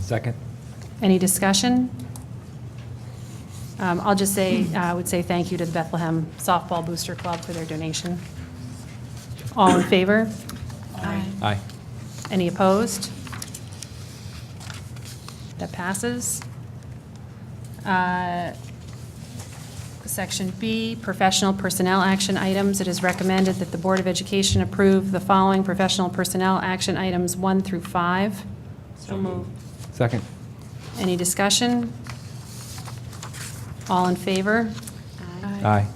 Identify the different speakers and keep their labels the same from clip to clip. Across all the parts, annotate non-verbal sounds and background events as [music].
Speaker 1: Second?
Speaker 2: Any discussion? Um, I'll just say, I would say thank you to the Bethlehem Softball Booster Club for their donation. All in favor?
Speaker 1: Aye.
Speaker 2: Any opposed? That passes. Uh, Section B, professional personnel action items. It is recommended that the Board of Education approve the following professional personnel action items, one through five. So moved.
Speaker 1: Second?
Speaker 2: Any discussion? All in favor?
Speaker 1: Aye.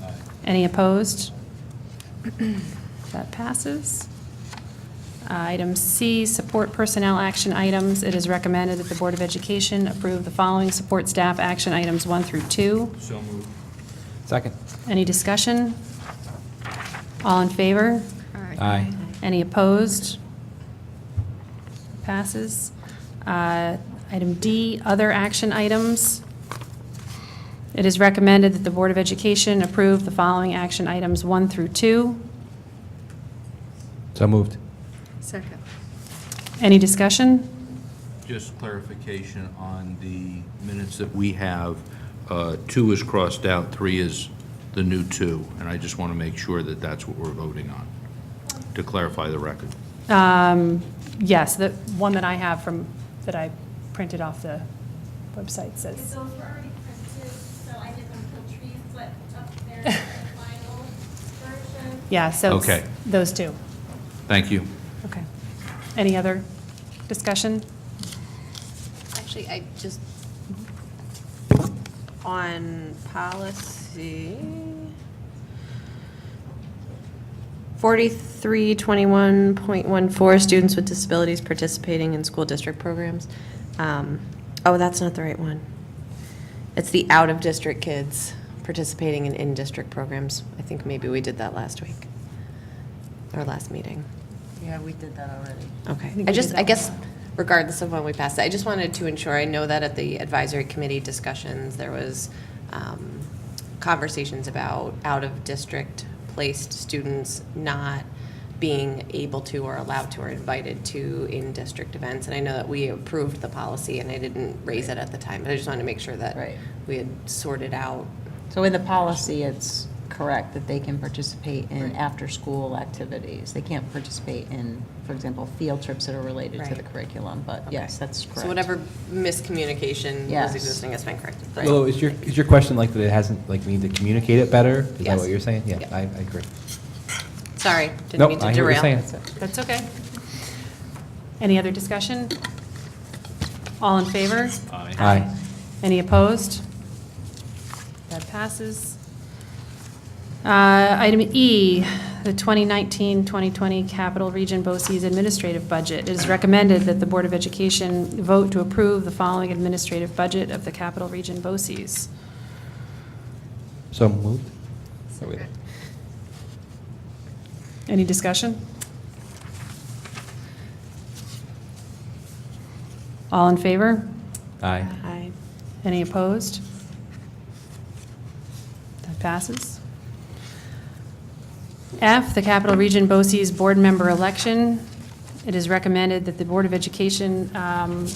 Speaker 2: Any opposed? [clears throat] That passes. Item C, support personnel action items. It is recommended that the Board of Education approve the following support staff action items one through two.
Speaker 3: So moved.
Speaker 1: Second?
Speaker 2: Any discussion? All in favor?
Speaker 1: Aye.
Speaker 2: Any opposed? Passes. Uh, Item D, other action items. It is recommended that the Board of Education approve the following action items one through two.
Speaker 1: So moved.
Speaker 4: Second.
Speaker 2: Any discussion?
Speaker 3: Just clarification on the minutes that we have. Uh, Two is crossed out, three is the new two, and I just want to make sure that that's what we're voting on, to clarify the record.
Speaker 2: Um, Yes, the one that I have from, that I printed off the website
Speaker 5: Because
Speaker 2: says,
Speaker 5: those were already printed, so I did them till trees split up there, the final version.
Speaker 2: yeah, so it's
Speaker 3: Okay.
Speaker 2: those two.
Speaker 3: Thank you.
Speaker 2: Okay. Any other discussion?
Speaker 4: Actually, I just, on policy, 4321.14, students with disabilities participating in school district programs. Um, Oh, that's not the right one. It's the out-of-district kids participating in in-district programs. I think maybe we did that last week, or last meeting.
Speaker 6: Yeah, we did that already.
Speaker 4: Okay,
Speaker 2: think
Speaker 4: I
Speaker 2: we
Speaker 4: just,
Speaker 2: did
Speaker 4: I
Speaker 2: that
Speaker 4: guess regardless of when we passed it, I just wanted to ensure, I know that at the advisory committee discussions, there was um, conversations about out-of-district placed students not being able to or allowed to or invited to in-district events. And I know that we approved the policy and I didn't raise it at the time, but I just wanted to make sure that
Speaker 6: Right.
Speaker 4: we had sorted out.
Speaker 6: So in the policy, it's correct that they can participate in after-school activities. They can't participate in, for example, field trips that are related to the
Speaker 4: Right.
Speaker 6: curriculum, but yes, that's correct.
Speaker 4: So whatever miscommunication was
Speaker 6: Yes.
Speaker 4: existing has been corrected.
Speaker 1: Lilo, is your, is your question like that it hasn't, like we need to communicate it better? Is that
Speaker 4: Yes.
Speaker 1: what you're saying? Yeah,
Speaker 4: Yeah.
Speaker 1: I, I agree.
Speaker 4: Sorry, didn't
Speaker 1: Nope,
Speaker 4: mean to derail.
Speaker 1: I hear what you're saying.
Speaker 2: That's okay. Any other discussion? All in favor?
Speaker 1: Aye.
Speaker 2: Any opposed? That passes. Uh, Item E, the 2019-2020 Capital Region BOCES Administrative Budget. It is recommended that the Board of Education vote to approve the following administrative budget of the Capital Region BOCES.
Speaker 1: So moved? So we-
Speaker 2: Any discussion? All in favor?
Speaker 1: Aye.
Speaker 4: Aye.
Speaker 2: Any opposed? That passes. F, the Capital Region BOCES Board Member Election. It is recommended that the Board of Education um,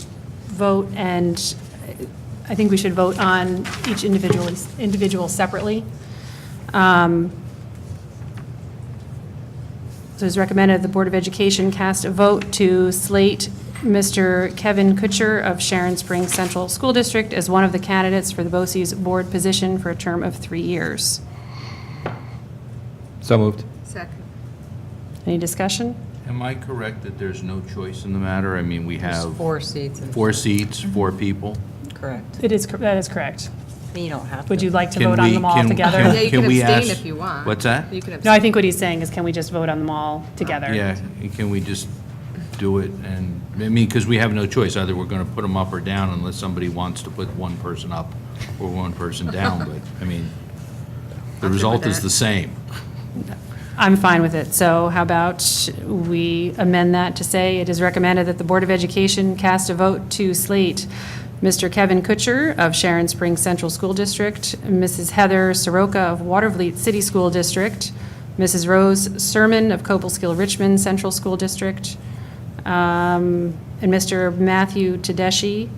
Speaker 2: vote, and uh, I think we should vote on each individual, individual separately. Um, So it is recommended the Board of Education cast a vote to slate Mr. Kevin Kutcher of Sharon Springs Central School District as one of the candidates for the BOCES Board position for a term of three years.
Speaker 1: So moved.
Speaker 4: Second.
Speaker 2: Any discussion?
Speaker 3: Am I correct that there's no choice in the matter? I mean, we have
Speaker 6: Four seats. and-
Speaker 3: four seats, four people.
Speaker 6: Correct.
Speaker 2: It is, that is correct.
Speaker 6: You don't have to.
Speaker 2: Would you like to
Speaker 3: Can
Speaker 2: vote on
Speaker 3: we-
Speaker 2: them all
Speaker 3: can-
Speaker 2: together?
Speaker 4: Yeah, you
Speaker 3: Can
Speaker 4: can
Speaker 3: we
Speaker 4: abstain
Speaker 3: ask-
Speaker 4: if you want.
Speaker 3: What's that?
Speaker 4: You can abstain.
Speaker 2: No, I think what he's saying is can we just vote on them all together?
Speaker 3: Yeah, can we just do it and, I mean, because we have no choice, either we're going to put them up or down unless somebody wants to put one person up or one person down, but, I mean, the result is the same.
Speaker 2: I'm fine with it. So how about we amend that to say, it is recommended that the Board of Education cast a vote to slate Mr. Kevin Kutcher of Sharon Springs Central School District, Mrs. Heather Soroka of Watervliet City School District, Mrs. Rose Sermon of Copelskill Richmond Central School District, um, and Mr. Matthew Tedeschi